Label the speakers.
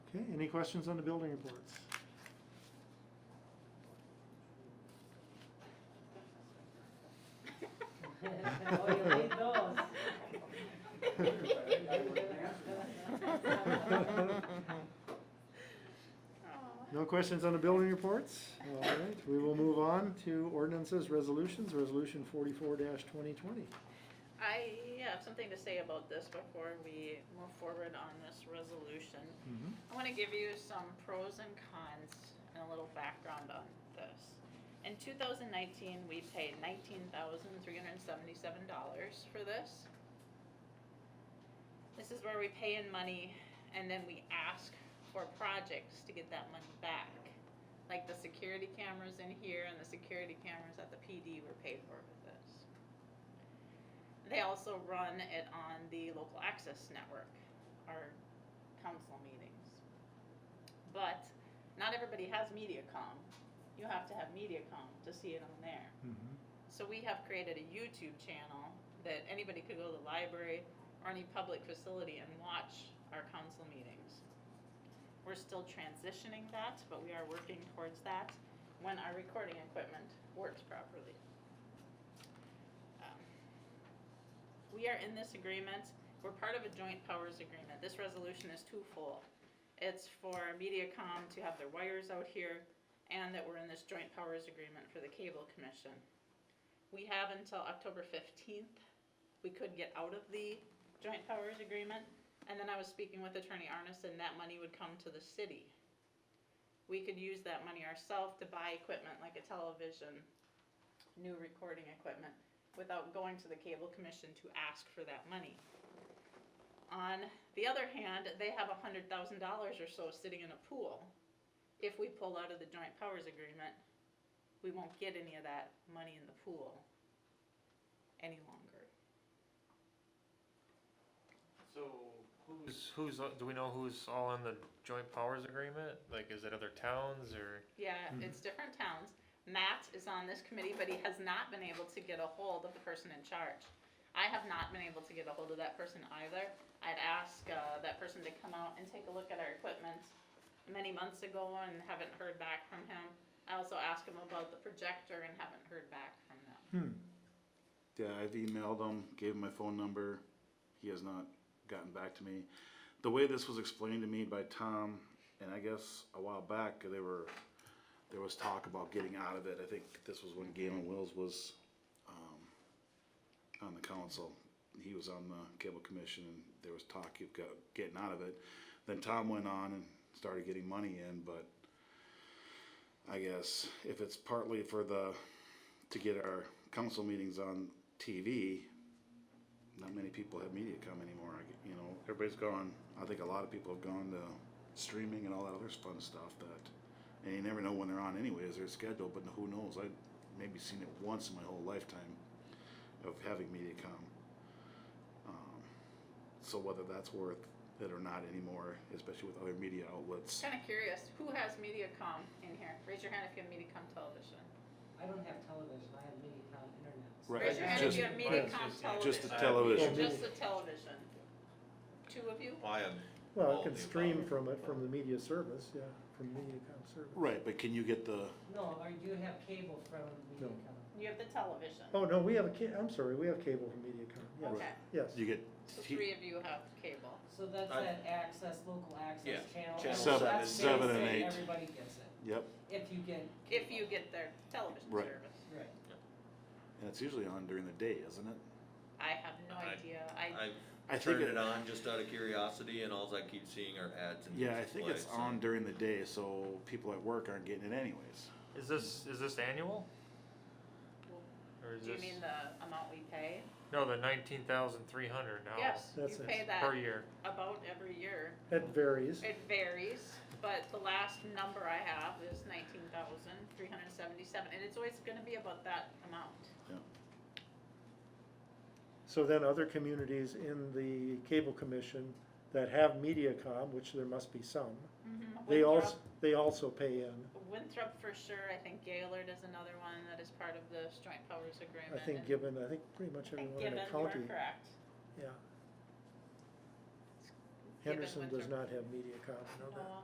Speaker 1: Okay, any questions on the building reports?
Speaker 2: Oh, you need those.
Speaker 1: No questions on the building reports? All right, we will move on to ordinances, resolutions, resolution forty-four twenty twenty.
Speaker 3: I have something to say about this before we move forward on this resolution. I want to give you some pros and cons and a little background on this. In 2019, we paid $19,377 for this. This is where we pay in money and then we ask for projects to get that money back. Like the security cameras in here and the security cameras at the PD were paid for with this. They also run it on the local access network, our council meetings. But not everybody has MediaCom. You have to have MediaCom to see it on there. So we have created a YouTube channel that anybody could go to the library or any public facility and watch our council meetings. We're still transitioning that, but we are working towards that when our recording equipment works properly. Um, we are in this agreement, we're part of a joint powers agreement, this resolution is twofold. It's for MediaCom to have their wires out here, and that we're in this joint powers agreement for the cable commission. We have until October fifteenth, we could get out of the joint powers agreement, and then I was speaking with Attorney Arneson, that money would come to the city. We could use that money ourselves to buy equipment like a television, new recording equipment, without going to the cable commission to ask for that money. On the other hand, they have a hundred thousand dollars or so sitting in a pool. If we pull out of the joint powers agreement, we won't get any of that money in the pool any longer.
Speaker 4: So who's, who's, uh, do we know who's all on the joint powers agreement? Like, is it other towns or?
Speaker 3: Yeah,
Speaker 1: Mhm.
Speaker 3: it's different towns. Matt is on this committee, but he has not been able to get a hold of the person in charge. I have not been able to get a hold of that person either. I'd asked uh, that person to come out and take a look at our equipment many months ago and haven't heard back from him. I also asked him about the projector and haven't heard back from them.
Speaker 5: Yeah, I've emailed him, gave him my phone number. He has not gotten back to me. The way this was explained to me by Tom, and I guess a while back, they were, there was talk about getting out of it. I think this was when Galen Wills was, um, on the council. He was on the cable commission and there was talk of go- getting out of it. Then Tom went on and started getting money in, but I guess if it's partly for the, to get our council meetings on TV, not many people have MediaCom anymore. I, get- you know, everybody's gone. I think a lot of people have gone to streaming and all that other fun stuff that, and you never know when they're on anyways, they're scheduled, but who knows? I maybe seen it once in my whole lifetime of having MediaCom. Um, so whether that's worth it or not anymore, especially with other media outlets.
Speaker 3: Kind of curious, who has MediaCom in here? Raise your hand if you have MediaCom television.
Speaker 2: I don't have television, I have MediaCom internet.
Speaker 5: Right.
Speaker 3: Raise your hand if
Speaker 5: Just-
Speaker 3: you have MediaCom
Speaker 5: Just the
Speaker 3: television.
Speaker 5: television.
Speaker 3: Just the television. Two of you?
Speaker 6: I am,
Speaker 1: Well, it can stream from it, from the media service, yeah, from MediaCom service.
Speaker 5: Right, but can you get the,
Speaker 2: No, or you have cable from MediaCom.
Speaker 3: You have the television.
Speaker 1: Oh, no, we have a ca- I'm sorry, we have cable from MediaCom,
Speaker 3: Okay,
Speaker 1: yes, yes.
Speaker 5: you get
Speaker 3: so three of you have cable.
Speaker 2: So that's
Speaker 6: I-
Speaker 2: that access, local access
Speaker 6: Yeah,
Speaker 2: channel.
Speaker 6: channel
Speaker 5: Seven-
Speaker 2: That's
Speaker 5: seven and
Speaker 2: basic,
Speaker 5: eight.
Speaker 2: Everybody gets it,
Speaker 5: Yep,
Speaker 2: if you get.
Speaker 3: If you get their television
Speaker 5: Right.
Speaker 3: service.
Speaker 2: Right.
Speaker 5: and it's usually on during the day, isn't it?
Speaker 3: I have no
Speaker 6: I-
Speaker 3: idea. I,
Speaker 5: I
Speaker 6: I
Speaker 5: think
Speaker 6: turned
Speaker 5: it-
Speaker 6: it on just out of curiosity and alls I keep seeing are ads and.
Speaker 5: Yeah, I
Speaker 6: music
Speaker 5: think
Speaker 6: play,
Speaker 5: it's
Speaker 6: so-
Speaker 5: on during the day, so people at work aren't getting it anyways.
Speaker 4: Is this, is this annual? Or is
Speaker 3: do you
Speaker 4: this,
Speaker 3: mean the amount we pay?
Speaker 4: no, the nineteen thousand three hundred now?
Speaker 3: Yes, you
Speaker 1: That's it.
Speaker 3: pay that
Speaker 4: Per year.
Speaker 3: about every year.
Speaker 1: That varies.
Speaker 3: It varies, but the last number I have is nineteen thousand three hundred and seventy-seven, and it's always gonna be about that amount.
Speaker 1: So then other communities in the cable commission that have MediaCom, which there must be some, they
Speaker 3: Winthrop-
Speaker 1: also, they also pay in.
Speaker 3: Winthrop for sure, I think Gaylord is another one that is part of this joint powers
Speaker 1: I
Speaker 3: agreement.
Speaker 1: think
Speaker 3: and-
Speaker 1: given, I think pretty much
Speaker 3: I think
Speaker 1: everyone in the
Speaker 3: Gibbon, you are
Speaker 1: county,
Speaker 3: correct.
Speaker 1: yeah.
Speaker 3: Gibbon,
Speaker 1: Henderson does
Speaker 3: Winthrop.
Speaker 1: not have MediaCom, I know that.
Speaker 3: No,